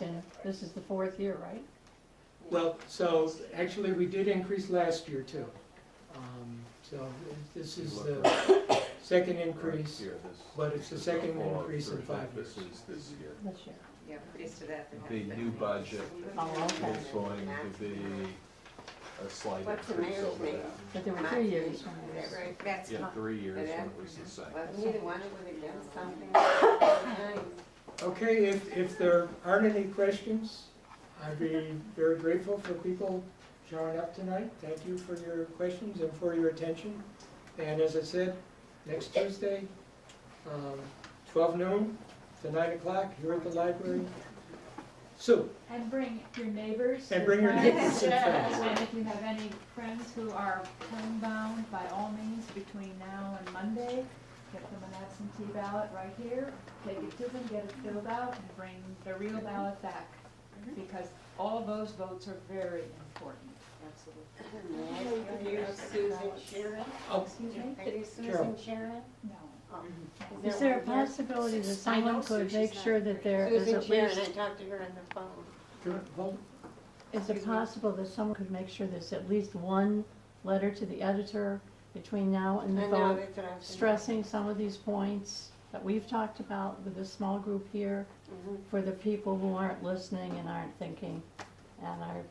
And this is the fourth year, right? Well, so, actually, we did increase last year too. Um, So this is the second increase. but it's the second increase in five years. This is this year. This year. Yeah, pleased to that. The new budget Oh, okay. is going to be a slight What's the increase mayor's over name? that. But there were three years when it Is was. that right? That's Yeah, not, three years when it was the same. Well, neither one of them have done something. nice. Okay, if, if there aren't any questions, I'd be very grateful for people showing up tonight. Thank you for your questions and for your attention. And as I said, next Tuesday, um, twelve noon to nine o'clock, here at the library. Sue, And bring your neighbors. And bring your neighbors and friends. And if you have any friends who are homebound, by all means, between now and Monday, get them an absentee ballot right here, take it to them, get it filled out, and bring the real ballot back. Mhm. Because all those votes are very important. absolutely. Are you Susan Sharon? oh, Excuse me? Are you Susan Carol. Sharon? No. Oh. Is there a one here? possibility that I know someone could Susie's make not sure that there is Susan at Sharon, least, I talked to her on the phone. Carol, hold. is it possible that someone could make sure there's at least one letter to the editor between now and the I know, vote, that's what I was. stressing some of these points that we've talked about with a small group here Mhm. for the people who aren't listening and aren't thinking and are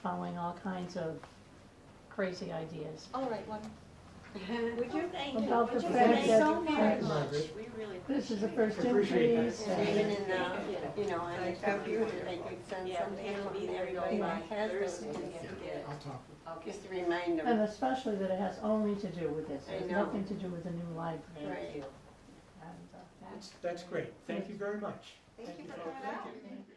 following all kinds of crazy ideas. All right, one. Mm-hmm. Would you thank him? About the Would you fact thank that- so very Thank you, much. Margaret. We really This is the appreciate first I appreciate that. increase. And and- even in the, you know, on the computer, they could send Yeah, something it'll be and there everybody by that has those Thursday. things. Yeah, I'll talk. Just to remind And them, especially that it has only to do with this, I it has know. nothing to do with the new library. right? And, uh, That's, that's great. Thank you very much. Thank you for Thank coming out. you.